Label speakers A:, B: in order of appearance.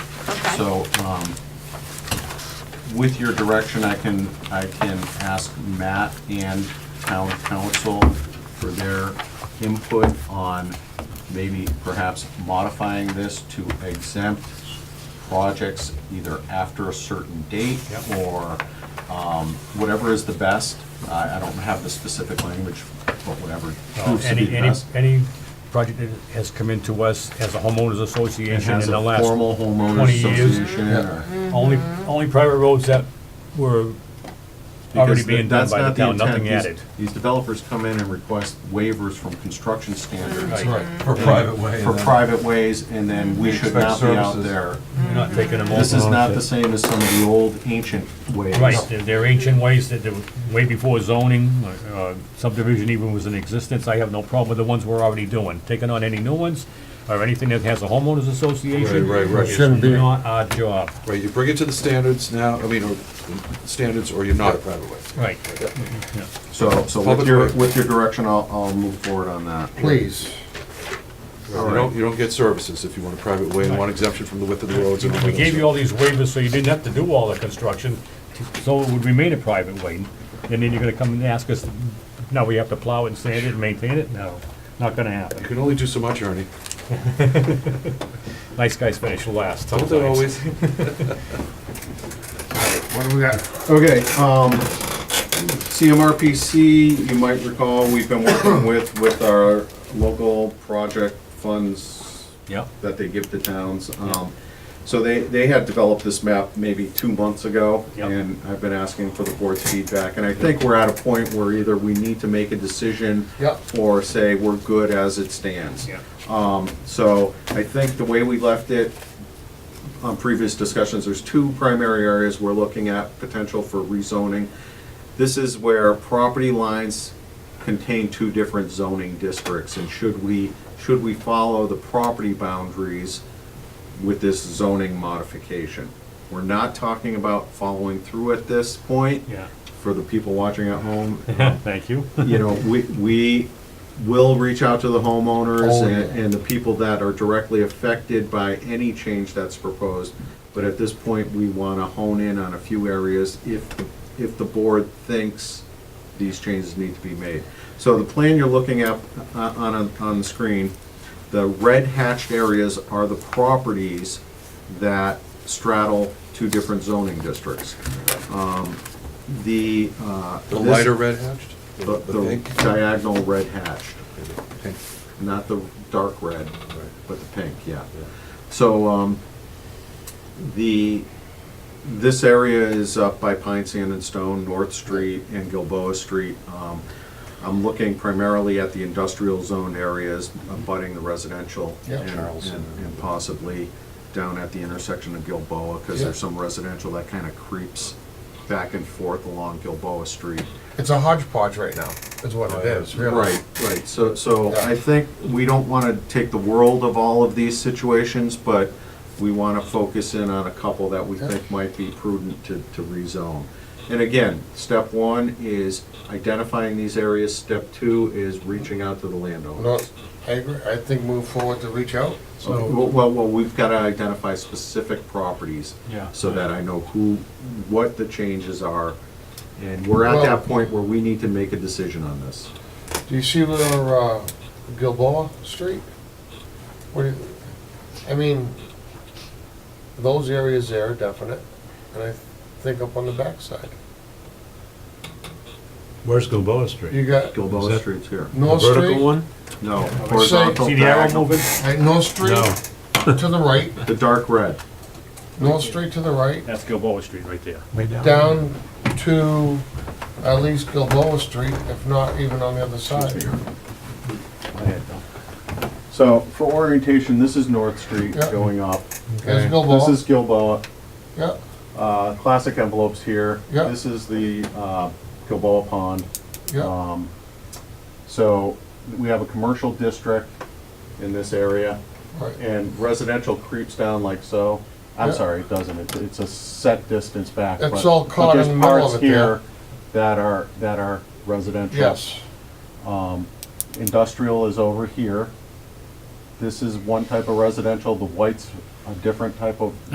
A: Okay.
B: So, um, with your direction, I can, I can ask Matt and town council for their input on maybe perhaps modifying this to exempt projects either after a certain date
C: Yep.
B: or um, whatever is the best. I, I don't have the specific language, but whatever proves to be
C: Uh, Any,
B: the
C: any,
B: best.
C: any project that has come into us as a homeowners
B: It
C: association in
B: has
C: the
B: a
C: last.
B: formal homeowners
C: 20 years.
B: association or.
C: Only, only private roads that were already
B: Because
C: being done
B: that's
C: by the
B: not
C: town, nothing
B: intent. These-
C: added.
B: These developers come in and request waivers from construction standards.
C: Right.
D: For private way.
B: For
D: then.
B: private uh, ways, and then we
D: We
B: should not
D: expect
B: be out
D: services.
B: there.
C: You're not taking them over.
B: This is not the same as some of the old ancient ways.
C: Right, they're- they're ancient ways that, they were way before zoning, uh, subdivision even was in existence, I have no problem with the ones we're already doing. Taking on any new ones, or anything that has a homeowners association.
D: Right, right, right.
C: is
E: Shouldn't be.
C: Not our job,
D: Right, you bring it to the standards now, I mean, or standards, or you're not a private way.
C: right. Yeah.
B: So, so with
D: Public
B: your,
D: way.
B: with your direction, I'll, I'll move forward on that.
E: Please.
D: You don't, you don't get services if you want a private way and want exemption from the width of the roads. and all
C: We
D: that
C: gave
D: stuff.
C: you all these waivers so you didn't have to do all the construction, so it would remain a private way. And then you're gonna come and ask us, now we have to plow it and sand it and maintain it? No, not gonna
D: You
C: happen.
D: can only do so much, Ernie.
C: Nice guys finish last
D: Don't
C: sometimes.
D: they always?
E: What do we got?
B: Okay, um, CMRPC, you might recall, we've been working with, with our local project funds
C: Yep,
B: that they give to towns. Um, So they, they had developed this map maybe two months ago,
C: Yep.
B: and I've been asking for the board's feedback. And I think we're at a point where either we need to make a decision
E: Yep.
B: or say we're good as it stands.
C: yep.
B: So I think the way we left it on previous discussions, there's two primary areas we're looking at potential for rezoning. This is where property lines contain two different zoning districts, and should we, should we follow the property boundaries with this zoning modification? We're not talking about following through at this point.
C: Yeah.
B: For the people watching at home,
C: Thank you.
B: you know, we, we will reach out to the homeowners
E: Oh,
B: and,
E: yeah.
B: and the people that are directly affected by any change that's proposed. But at this point, we want to hone in on a few areas if, if the board thinks these changes need to be made. So the plan you're looking at uh, on, on the screen, the red hatched areas are the properties that straddle two different zoning districts. Um, The. uh,
D: The
B: this-
D: lighter red hatched?
B: the
D: The
B: the
D: pink?
B: diagonal red hatched,
D: Pink,
B: not the dark red,
D: right.
B: but the pink, yeah.
D: Yeah.
B: So, um, the, this area is up by Pine Sand and Stone, North Street and Gilboa Street. Um, I'm looking primarily at the industrial zone areas abutting the residential.
E: Yeah.
B: and-
D: Charles.
B: And and possibly down at the intersection of Gilboa, because
E: Yeah.
B: there's some residential that kind of creeps back and forth along Gilboa Street.
E: It's a hodgepodge right now, is what
D: Oh,
E: it is, really.
B: Right, right, so, so I think we don't wanna take the world of all of these situations, but we wanna focus in on a couple that we think might be prudent to, to rezone. And again, step one is identifying these areas, step two is reaching out to the landowner.
E: No, I agree, I think move forward to reach out.
B: Well, well, well, we've gotta identify specific properties.
C: Yeah.
B: So that I know who, what the changes are, and we're at
E: Well-
B: that point where we need to make a decision on this.
E: Do you see where, uh, Gilboa Street? What do you, I mean, those areas there are definite, and I think up on the backside.
F: Where's Gilboa Street?
E: You got
B: Gilboa
F: that-
B: Street's here.
F: The
E: North
F: vertical
E: Street,
F: one?
B: No,
E: Say-
B: horizontal
C: See the arrow
B: diagonal.
C: moving?
E: right, North Street
F: No,
E: to the right,
B: The dark red.
E: North Street to the right,
C: That's Gilboa Street right there.
F: way down.
E: down to at least Gilboa Street, if not even on the other side.
B: So for orientation, this is North Street
E: Yeah.
B: going up.
E: There's
B: This
E: Gilboa,
B: is Gilboa.
E: yeah,
B: Uh, Classic envelopes here.
E: Yeah.
B: This is the uh, Gilboa Pond.
F: Uh,
E: yeah,
B: Um, So we have a commercial district in this area
E: right.
B: and residential creeps down like so. I'm
E: Yeah.
B: sorry, it doesn't. It's- It's a set distance back.
E: It's
B: but-
E: all
B: but
E: caught
B: there's
E: in the middle
B: parts
E: of it there.
B: here That are, that are residential.
E: Yes,
B: Industrial is over here. This is one type of residential, the white's a different type of